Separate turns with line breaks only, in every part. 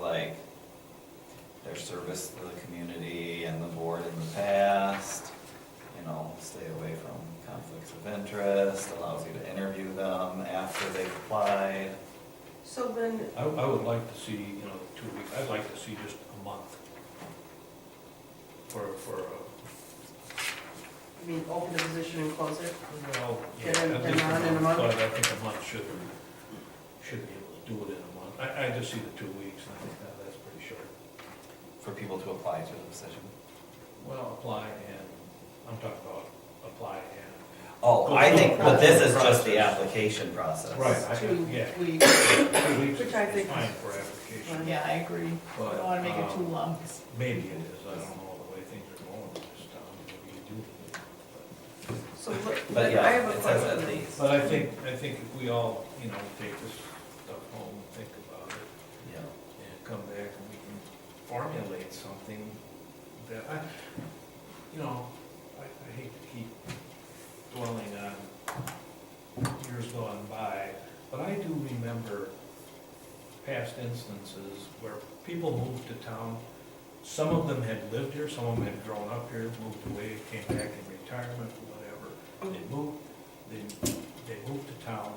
like their service to the community and the board in the past. You know, stay away from conflicts of interest, allows you to interview them after they've applied.
So then,
I, I would like to see, you know, two weeks, I'd like to see just a month. For, for, uh,
I mean, open the position and close it?
well, yeah,
Get it
at least
done in a month?
But I think a month should, should be able to do it in a month. I, I just see the two weeks, and I think that, that's pretty short.
For people to apply to the position.
Well, apply and, I'm talking about apply and.
Oh, I think, but this is just the
Process.
application process.
Right, I,
Two
yeah,
weeks.
two weeks is
Which I think
is
is-
fine for application.
Yeah, I agree. I
But,
don't wanna make it
um,
too long.
Maybe it is, I don't know the way things are going in this town, maybe you do.
So what,
But
I have
yeah,
a
it says at
question.
least.
But I think, I think if we all, you know, take this stuff home, and think about it,
Yeah.
and come back and we can formulate something that, I, you know, I, I hate to keep dwelling on years gone by, but I do remember past instances where people moved to town. Some of them had lived here, some of them had grown up here, moved away, came back in retirement, whatever. They moved, they, they moved to town,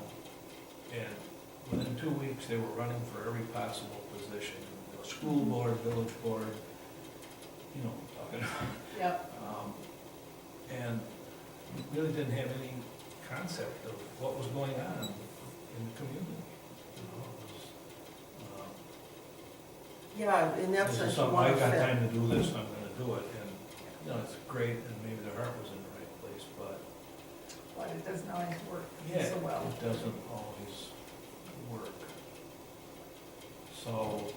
and within two weeks, they were running for every possible position. you know, School board, village board, you know, what I'm talking
Yep,
about. Um, And really didn't have any concept of what was going on in the community. you know, it was, um,
Yeah, and that's
This is
a
something,
one
I've got
fit.
time to do this, I'm gonna do it, and, you know, it's great, and maybe their heart was in the right place, but
but it doesn't always work
Yeah,
so well.
it doesn't always work. So,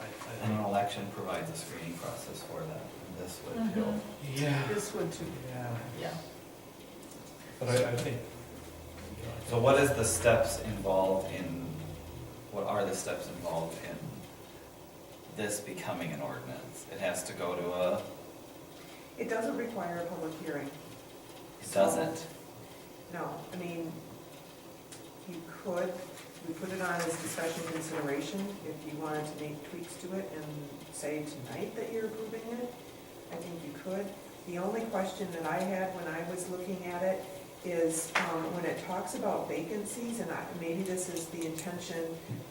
I, I
And an
don't.
election provides a screening process for that, and this would too.
Mhm.
Yeah.
This one too.
Yeah,
Yeah,
but I, I think.
So what is the steps involved in, what are the steps involved in this becoming an ordinance? It has to go to a,
It doesn't require a public hearing,
it doesn't?
no. I mean, you could, we put it on as discussion consideration if you wanted to make tweaks to it and say tonight that you're approving it. I think you could. The only question that I had when I was looking at it is um, when it talks about vacancies, and I, maybe this is the intention,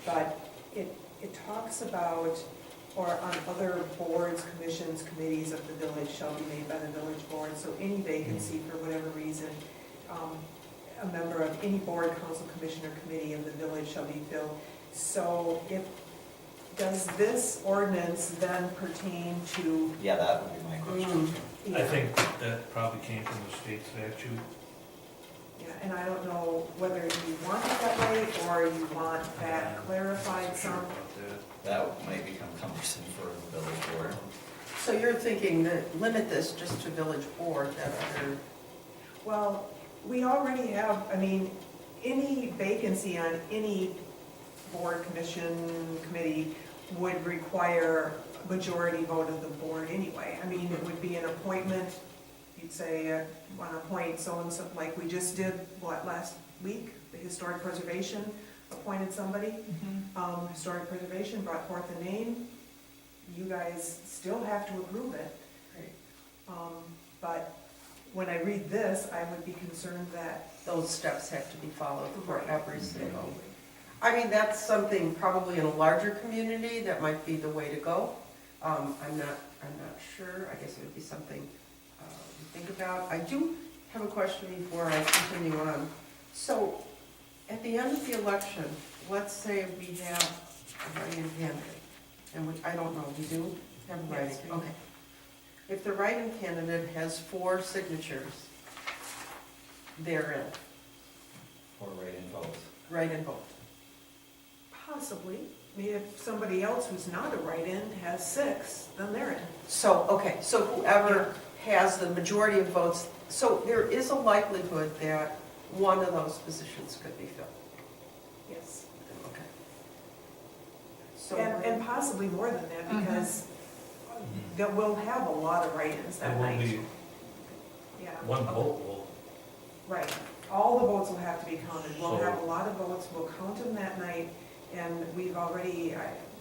but it, it talks about, or on other boards, commissions, committees of the village shall be made by the village board, so any vacancy for whatever reason, um, a member of any board, council, commission, or committee of the village shall be filled. So if, does this ordinance then pertain to?
Yeah, that would be my question.
Hmm.
I think that probably came from the state statute.
Yeah, and I don't know whether you want it that way or you want that clarified
Sure
some.
about that.
That might become cumbersome for the village board.
So you're thinking that limit this just to village board, that other,
Well, we already have, I mean, any vacancy on any board, commission, committee would require a majority vote of the board anyway. I mean, it would be an appointment, you'd say, uh, wanna appoint so-and-so, like we just did, what, last week? The historic preservation appointed somebody.
Mhm.
Um, Historic Preservation brought forth a name. You guys still have to approve it.
Right.
Um, But when I read this, I would be concerned that,
those steps have to be followed for
Right.
every single. I mean, that's something probably in a larger community that might be the way to go. Um, I'm not, I'm not sure, I guess it would be something uh, to think about. I do have a question before I continue on. So, at the end of the election, let's say we have a write-in candidate, and we, I don't know, we do have a write-in,
Yes, we do.
okay. If the write-in candidate has four signatures, they're in,
Or rate and vote.
write-in vote.
possibly, I mean, if somebody else who's not a write-in has six, then they're in.
So, okay, so whoever has the majority of votes, so there is a likelihood that one of those positions could be filled.
Yes.
Okay. So,
And, and
we're-
possibly more than that, because that we'll have a lot of write-ins
It
that
will
night.
be,
Yeah.
one vote will,
Right, all the votes will have to be counted, we'll have a lot of votes, we'll count them that night, and we've already, I,